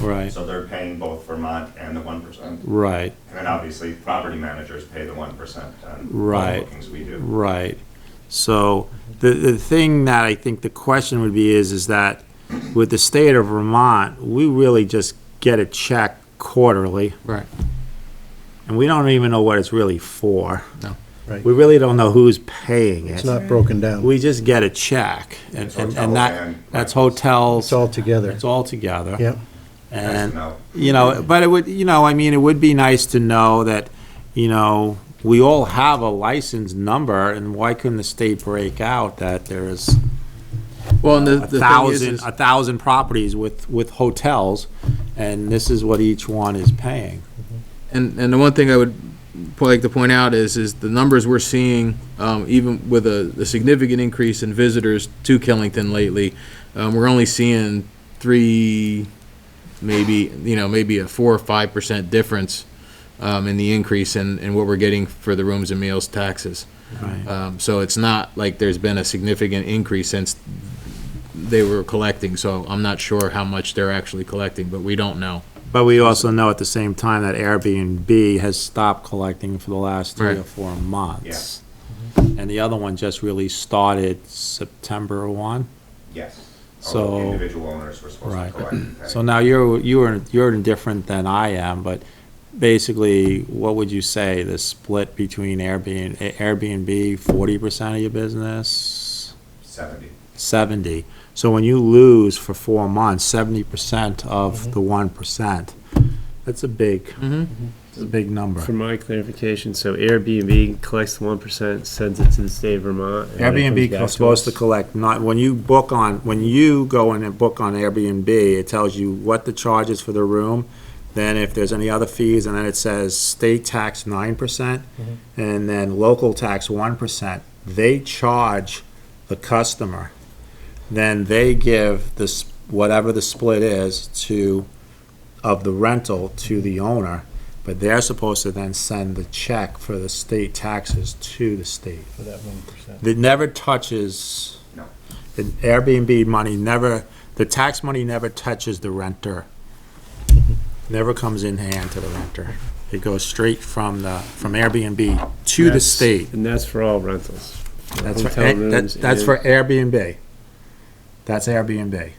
Right, So they're paying both Vermont and the one percent. right, And then obviously, property managers pay the one percent on all Right. the bookings we do. right. So the, the thing that I think the question would be is, is that with the state of Vermont, we really just get a check quarterly. Right. And we don't even know what it's really for. No. Right. We really don't know who's paying It's it. not broken down. We just get a check and, It's and hotels and that, and- that's hotels. It's all together. It's all together. Yep. Nice And, to know. you know, but it would, you know, I mean, it would be nice to know that, you know, we all have a license number, and why couldn't the state break out that there is Well, and the, a the thing is, thousand, is, a thousand properties with, with hotels, and this is what each one is paying? and, and the one thing I would po- like to point out is, is the numbers we're seeing, um, even with a, a significant increase in visitors to Killington lately, um, we're only seeing three, maybe, you know, maybe a four or five percent difference, um, in the increase in, in what we're getting for the rooms and meals taxes. Right. Um, so it's not like there's been a significant increase since they were collecting, so I'm not sure how much they're actually collecting, but we don't know. But we also know at the same time that Airbnb has stopped collecting for the last three Right. or four months. And the other one just really started September one. Yes. So- All Individual owners were supposed to Right. collect. and pay. So now you're, you're, you're indifferent than I am, but basically, what would you say, the split between Airbnb, Airbnb, forty percent of your business? Seventy. Seventy. So when you lose for four months, seventy percent of the one percent, that's a big, that's a big For number. my clarification, so Airbnb collects the one percent, sends it to the state of Vermont. and then it comes Airbnb back is supposed to us. collect, not, when you book on, when you go in and book on Airbnb, it tells you what the charge is for the room, then if there's any other fees, and then it says state tax nine percent, and then local tax one percent. They charge the customer. Then they give this, whatever the split is to, of the rental to the owner, but they're supposed to then send the check for the state taxes to the state. For that 1%. It never touches. No. The Airbnb money never, the tax money never touches the renter. Never comes in hand to the renter. It goes straight from the, from Airbnb to the That's- state. And that's for all rentals. for That's for, hotel eh, that- rooms that's and- for Airbnb. That's Airbnb.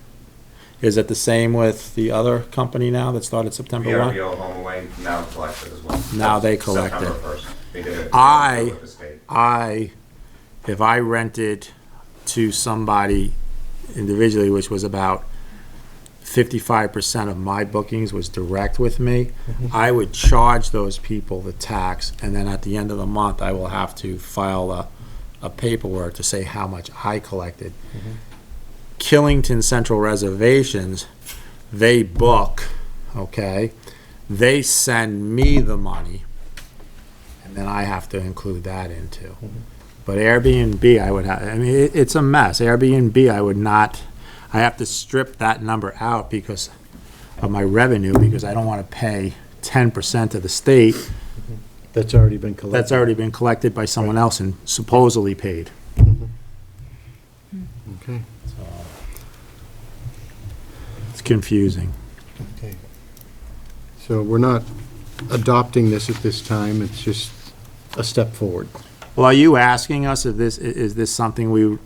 Is it the same with the other company now that started September one? VRBO Home Away now collected as well. Now they collect it. September first. They did it. I- With the state. I, if I rented to somebody individually, which was about fifty-five percent of my bookings was direct with me, I would charge those people the tax, and then at the end of the month, I will have to file a, a paperwork to say how much I collected. Killington Central Reservations, they book, okay? They send me the money, and then I have to include that into. But Airbnb, I would have, I mean, it, it's a mess. Airbnb, I would not, I have to strip that number out because of my revenue, because I don't want to pay ten percent of the state That's already been collected. that's already been collected by someone else and supposedly paid. Okay. It's confusing. Okay. So we're not adopting this at this time, it's just a step forward. Well, are you asking us if this, i- is this something we,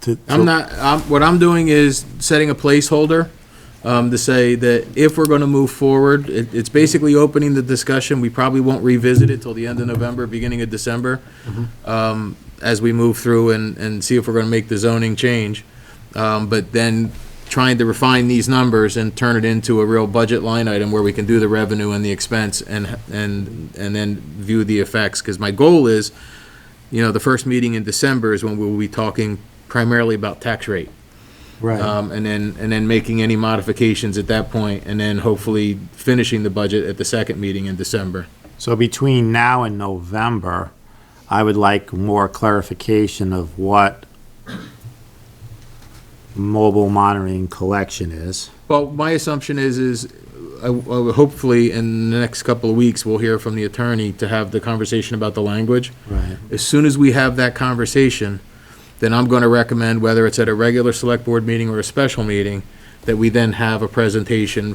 to? I'm not, I'm, what I'm doing is setting a placeholder, um, to say that if we're gonna move forward, it, it's basically opening the discussion, we probably won't revisit it till the end of November, beginning of December, um, as we move through and, and see if we're gonna make the zoning change. Um, but then trying to refine these numbers and turn it into a real budget line item where we can do the revenue and the expense and, and, and then view the effects, cause my goal is, you know, the first meeting in December is when we'll be talking primarily about tax rate. Right, Um, and then, and then making any modifications at that point, and then hopefully finishing the budget at the second meeting in December. so between now and November, I would like more clarification of what mobile monitoring collection is. Well, my assumption is, is I- I would hopefully in the next couple of weeks, we'll hear from the attorney to have the conversation about the language. Right. As soon as we have that conversation, then I'm going to recommend, whether it's at a regular select board meeting or a special meeting, that we then have a presentation